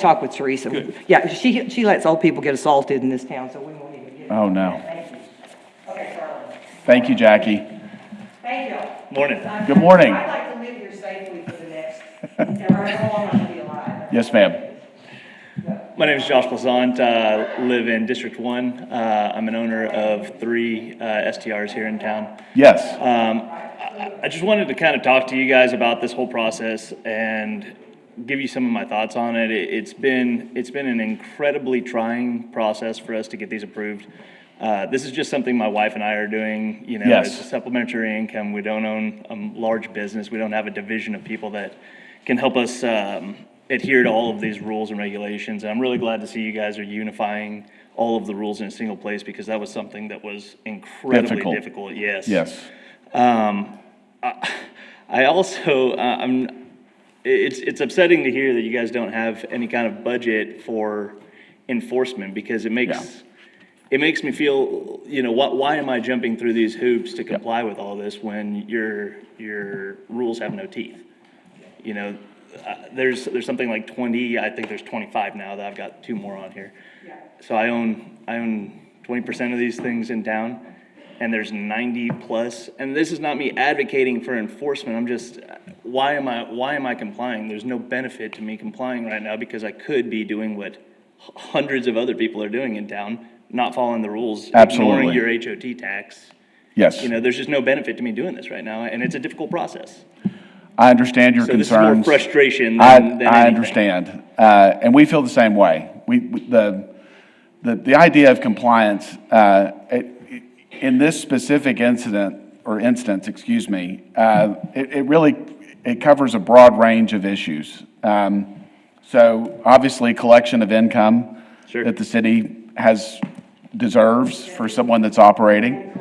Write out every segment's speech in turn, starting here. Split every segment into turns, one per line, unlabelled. talk with Teresa.
Good.
Yeah, she, she lets old people get assaulted in this town, so we won't even get.
Oh, no.
Thank you. Okay, Charlie.
Thank you, Jackie.
Thank you.
Morning.
Good morning.
I'd like to live here safely for the next, however long I'm gonna be alive.
Yes, ma'am.
My name is Josh Blazant. I live in District 1. Uh, I'm an owner of three uh, STRs here in town.
Yes,
Um, I I just wanted to kind of talk to you guys about this whole process and give you some of my thoughts on it. It- It's been, it's been an incredibly trying process for us to get these approved. Uh, This is just something my wife and I are doing, you know,
Yes.
it's a supplementary income. We don't own a large business. We don't have a division of people that can help us um, adhere to all of these rules and regulations. And I'm really glad to see you guys are unifying all of the rules in a single place because that was something that was incredibly
Difficult.
difficult. Yes.
yes.
Um, I, I also, uh, I'm, it's, it's upsetting to hear that you guys don't have any kind of budget for enforcement because it makes, it makes me feel, you know, why, why am I jumping through these hoops to comply with all this when your, your rules have no teeth? You know, uh, there's, there's something like twenty, I think there's twenty-five now that I've got two more on here. So I own, I own twenty percent of these things in town, and there's ninety plus, and this is not me advocating for enforcement, I'm just, why am I, why am I complying? There's no benefit to me complying right now, because I could be doing what hundreds of other people are doing in town, not following the rules.
Absolutely.
Ignoring your HOT tax,
Yes.
you know, there's just no benefit to me doing this right now, and it's a difficult process.
I understand your
So this is more
concerns.
frustration
I,
than, than
I
anything.
understand. Uh, and we feel the same way. We, we- the, the, the idea of compliance, uh, it- it- in this specific incident, or instance, excuse me, uh, it, it really, it covers a broad range of issues. Um, so obviously, collection of income
Sure.
that the city has, deserves for someone that's operating.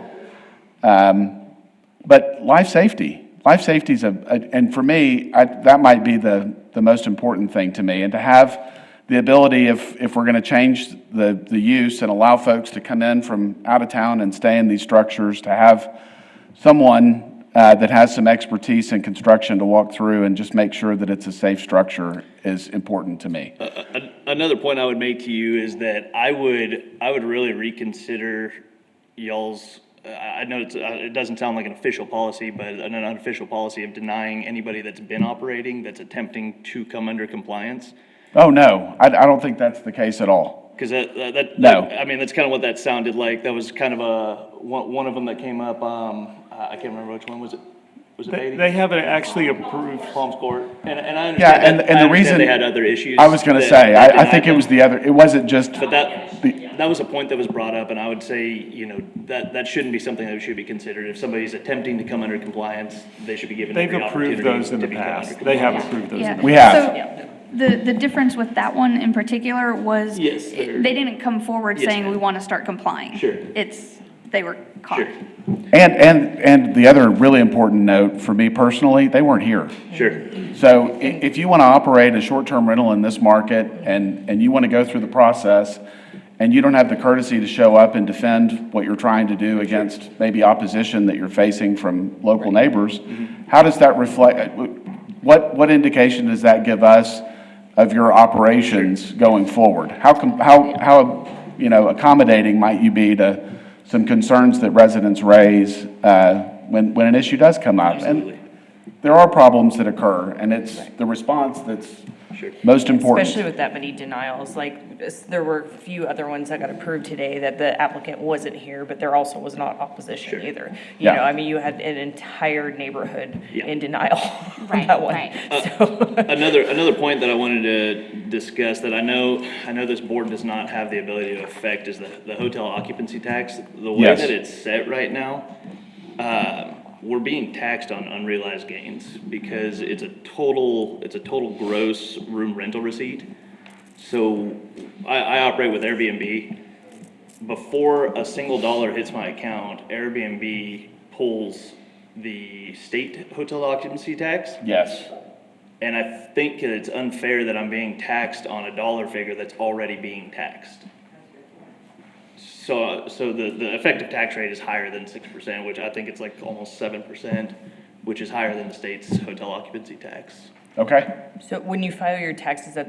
But life safety, life safety is a, a- and for me, I, that might be the, the most important thing to me. And to have the ability, if, if we're going to change the, the use and allow folks to come in from out of town and stay in these structures, to have someone uh, that has some expertise in construction to walk through and just make sure that it's a safe structure is important to me.
An- Another point I would make to you is that I would, I would really reconsider y'all's, I I know it's, uh, it doesn't sound like an official policy, but an unofficial policy of denying anybody that's been operating, that's attempting to come under compliance.
Oh, no, I, I don't think that's the case at all.
Because that, that- that.
No.
I mean, that's kind of what that sounded like. That was kind of a, one, one of them that came up, um, I I can't remember which one was it? Was it
They
Beatty?
they haven't actually approved,
Palms Court. And, and I
Yeah,
understand.
and,
that-
and
I
the
understand
reason.
They had other issues.
I was going to
that-
say,
that
I, I
denied
think it
them.
was the other, it wasn't just.
But that,
The-
that was a point that was brought up, and I would say, you know, that, that shouldn't be something that should be considered. If somebody's attempting to come under compliance, they should be given
they've
every opportunity
approved those in
to
the
become under
past. They
compliance.
have approved those in
We
the
have.
So the, the difference with that one in particular was.
Yes, they're-
it- They didn't come forward
Yes,
saying,
ma'am.
we want to start complying.
Sure.
It's, they were caught.
And, and, and the other really important note for me personally, they weren't here.
Sure, sure.
So i- if you want to operate a short-term rental in this market and, and you want to go through the process and you don't have the courtesy to show up and defend what you're trying to do against maybe opposition that you're facing from local neighbors, how does that reflect, uh, what, what indication does that give us of your operations going forward? How, com- how, how, you know, accommodating might you be to some concerns that residents raise uh, when, when an issue does come up? And-
Absolutely.
there are problems that occur, and it's the response that's
Sure.
most important.
Especially with that many denials, like, this- there were a few other ones that got approved today that the applicant wasn't here, but there also was not opposition either. You
Yeah.
know, I mean, you had an entire neighborhood
Yeah.
in denial on
Right,
that one.
right.
So,
Another, another point that I wanted to discuss that I know, I know this board does not have the ability to affect is the, the hotel occupancy tax. The way
Yes.
that it's set right now, uh, we're being taxed on unrealized gains because it's a total, it's a total gross room rental receipt. So I, I operate with Airbnb. Before a single dollar hits my account, Airbnb pulls the state hotel occupancy tax.
Yes,
And I think that it's unfair that I'm being taxed on a dollar figure that's already being taxed. So, so the, the effective tax rate is higher than six percent, which I think it's like almost seven percent, which is higher than the state's hotel occupancy tax.
okay.
so when you file your taxes at